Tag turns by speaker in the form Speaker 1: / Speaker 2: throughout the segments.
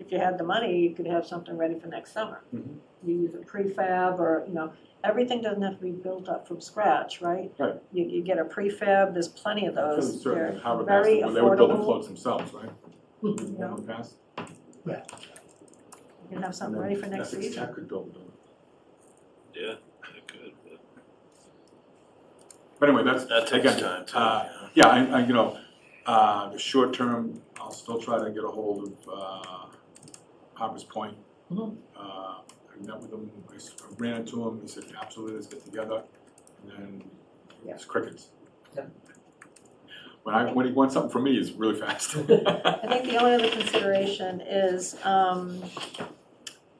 Speaker 1: if you had the money, you could have something ready for next summer.
Speaker 2: Mhm.
Speaker 1: You use a prefab or, you know, everything doesn't have to be built up from scratch, right?
Speaker 2: Right.
Speaker 1: You, you get a prefab, there's plenty of those.
Speaker 2: Certainly,
Speaker 1: They're
Speaker 2: Howard passed
Speaker 1: very
Speaker 2: it, when they were building
Speaker 1: affordable.
Speaker 2: floats themselves, right?
Speaker 1: you know,
Speaker 2: Howard passed.
Speaker 1: You can have
Speaker 2: And
Speaker 1: something
Speaker 2: then
Speaker 1: ready for next
Speaker 2: Essex
Speaker 1: season.
Speaker 2: Tech could build a building.
Speaker 3: Yeah, it could, but
Speaker 2: But anyway, that's,
Speaker 3: that takes
Speaker 2: again,
Speaker 3: time too,
Speaker 2: uh,
Speaker 3: yeah.
Speaker 2: Yeah, I, I, you know, uh, the short term, I'll still try to get a hold of, uh, Harper's Point.
Speaker 1: Mhm.
Speaker 2: Uh, I met with him, I s- I ran into him, he said, absolutely, let's get together, and then
Speaker 1: Yeah.
Speaker 2: it's crickets.
Speaker 4: Yeah.
Speaker 2: When I, when he wants something from me, it's really fast.
Speaker 1: I think the only other consideration is, um,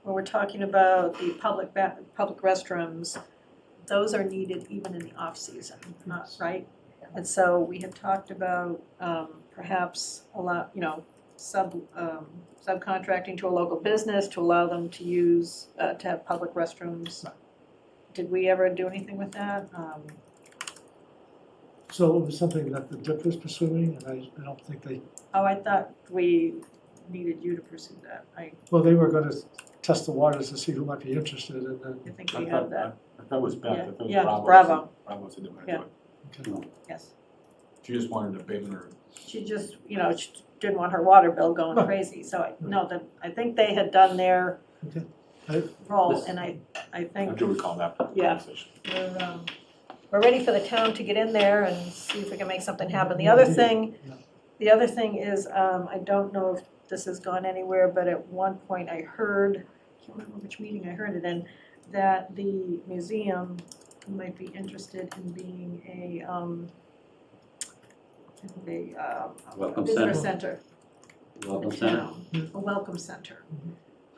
Speaker 1: when we're talking about the public ba- public restrooms, those are needed even in the off-season, not, right? And so we had talked about, um, perhaps allow, you know, sub, um, subcontracting to a local business to allow them to use, uh, to have public restrooms. Did we ever do anything with that? Um,
Speaker 4: So it was something that the DIP was pursuing, and I, I don't think they,
Speaker 1: oh, I thought we needed you to pursue that. I,
Speaker 4: well, they were gonna test the waters to see who might be interested, and then,
Speaker 1: I think we have that,
Speaker 2: I thought it was Beth, I
Speaker 1: Yeah,
Speaker 2: thought it was
Speaker 1: yeah,
Speaker 2: Bravo.
Speaker 1: Bravo.
Speaker 2: Bravo said they wanna
Speaker 1: Yeah.
Speaker 2: do it.
Speaker 4: okay.
Speaker 1: yes.
Speaker 2: She just wanted a abatement or
Speaker 1: she just, you know, she didn't want her water bill going
Speaker 4: Right.
Speaker 1: crazy, so I, no, that, I think they had done their
Speaker 4: Okay. I-
Speaker 1: role,
Speaker 2: This-
Speaker 1: and I, I
Speaker 2: I
Speaker 1: think
Speaker 2: do recall that
Speaker 1: Yeah.
Speaker 2: conversation.
Speaker 1: we're, um, we're ready for the town to get in there and see if we can make something happen. The other thing,
Speaker 4: Yeah.
Speaker 1: the other thing is, um, I don't know if this has gone anywhere, but at one point I heard, I can't remember which meeting I heard it in, that the museum might be interested in being a, um, a, uh, a
Speaker 5: Welcome
Speaker 1: visitor
Speaker 5: center,
Speaker 1: center.
Speaker 5: welcome
Speaker 1: the
Speaker 5: center.
Speaker 1: town, a welcome center.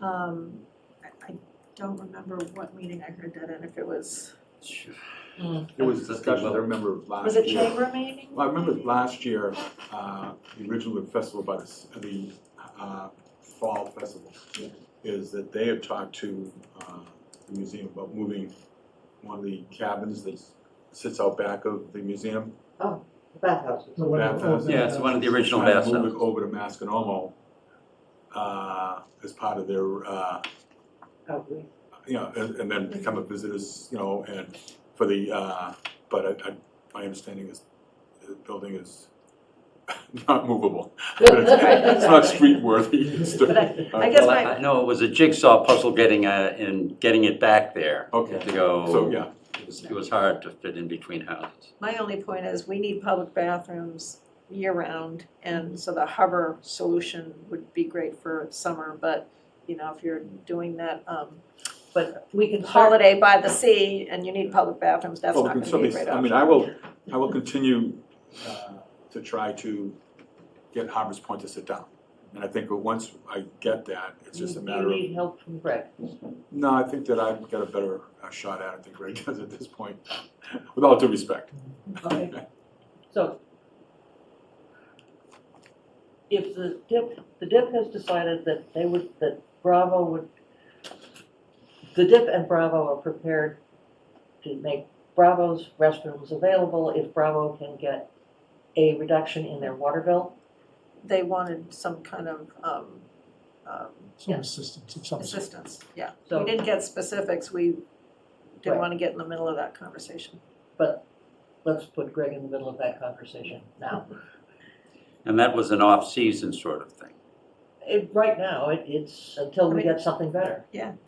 Speaker 1: Um, I, I don't remember what meeting I heard that in, if it was,
Speaker 2: It was
Speaker 5: That's the
Speaker 2: discussion, I
Speaker 5: well.
Speaker 2: remember last year.
Speaker 1: was it chamber meeting?
Speaker 2: Well, I remember last year, uh, the original festival, by the, s- the, uh, fall festival,
Speaker 1: Yeah.
Speaker 2: is that they had talked to, uh, the museum about moving one of the cabins that sits out back of the museum.
Speaker 6: Bathhouses.
Speaker 4: No, what-
Speaker 2: Bathhouse.
Speaker 4: oh,
Speaker 5: Yeah, it's one of the original
Speaker 2: trying to
Speaker 5: baths.
Speaker 2: Move it over to Masconomo, uh, as part of their, uh,
Speaker 6: Outreach.
Speaker 2: you know, and, and then become a
Speaker 1: Mm-hmm.
Speaker 2: visitors, you know, and for the, uh, but I, I, my understanding is the building is not movable. It's not street worthy. It's
Speaker 1: But
Speaker 2: the-
Speaker 1: I, I guess
Speaker 5: Well,
Speaker 1: my,
Speaker 5: I know it was a jigsaw puzzle getting, uh, and getting it back there.
Speaker 2: Okay.
Speaker 5: To go.
Speaker 2: So, yeah,
Speaker 5: It was, it was hard to fit in between houses.
Speaker 1: my only point is, we need public bathrooms year-round, and so the harbor solution would be great for summer, but, you know, if you're doing that, um,
Speaker 6: But we can start,
Speaker 1: holiday by the sea, and you need public bathrooms, that's
Speaker 2: well,
Speaker 1: not
Speaker 2: we
Speaker 1: gonna
Speaker 2: can
Speaker 1: be a
Speaker 2: certainly,
Speaker 1: great
Speaker 2: I
Speaker 1: option.
Speaker 2: mean, I will, I will continue, uh, to try to get Harbor's Point to sit down. And I think once I get that, it's just a
Speaker 6: you
Speaker 2: matter of,
Speaker 6: need help from Brett.
Speaker 2: no, I think that I've got a better uh, shot at it than Greg does at this point, with all due respect.
Speaker 6: Okay, so. If the DIP, the DIP has decided that they would, that Bravo would, the DIP and Bravo are prepared to make Bravo's restrooms available if Bravo can get a reduction in their water bill.
Speaker 1: They wanted some kind of, um, um,
Speaker 4: Some assistance of some sort.
Speaker 1: assistance, yeah. We
Speaker 6: So,
Speaker 1: didn't get specifics, we didn't
Speaker 6: Right.
Speaker 1: wanna get in the middle of that conversation.
Speaker 6: but let's put Greg in the middle of that conversation now.
Speaker 5: And that was an off-season sort of thing.
Speaker 6: It, right now, it, it's until we
Speaker 1: I mean-
Speaker 6: get something better.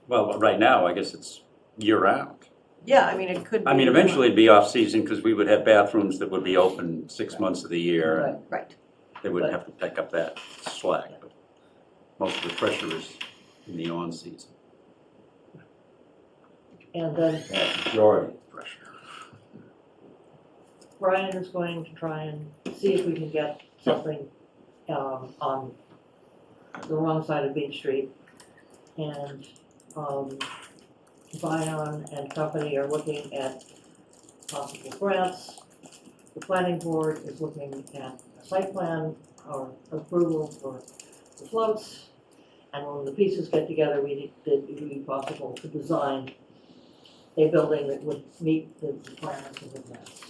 Speaker 5: Well, right now, I guess it's year-round.
Speaker 1: Yeah, I mean, it could be.
Speaker 5: I mean, eventually it'd be off-season because we would have bathrooms that would be open six months of the year. and
Speaker 1: Right,
Speaker 5: They wouldn't have to pick up that slack. but Most of the pressure is in the on-season,
Speaker 6: And then
Speaker 5: majority of the pressure.
Speaker 6: Brian is going to try and see if we can get something, um, on the wrong side of Beach Street. And, um, Bion and company are looking at possible grants. The planning board is looking at a site plan or approval for the floats. And when the pieces get together, we need, it would be possible to design a building that would meet the requirements of the grants.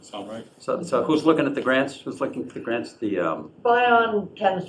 Speaker 2: Sound right?
Speaker 5: So, so who's looking at the grants? Who's looking at the grants? The, um,
Speaker 6: Bion tends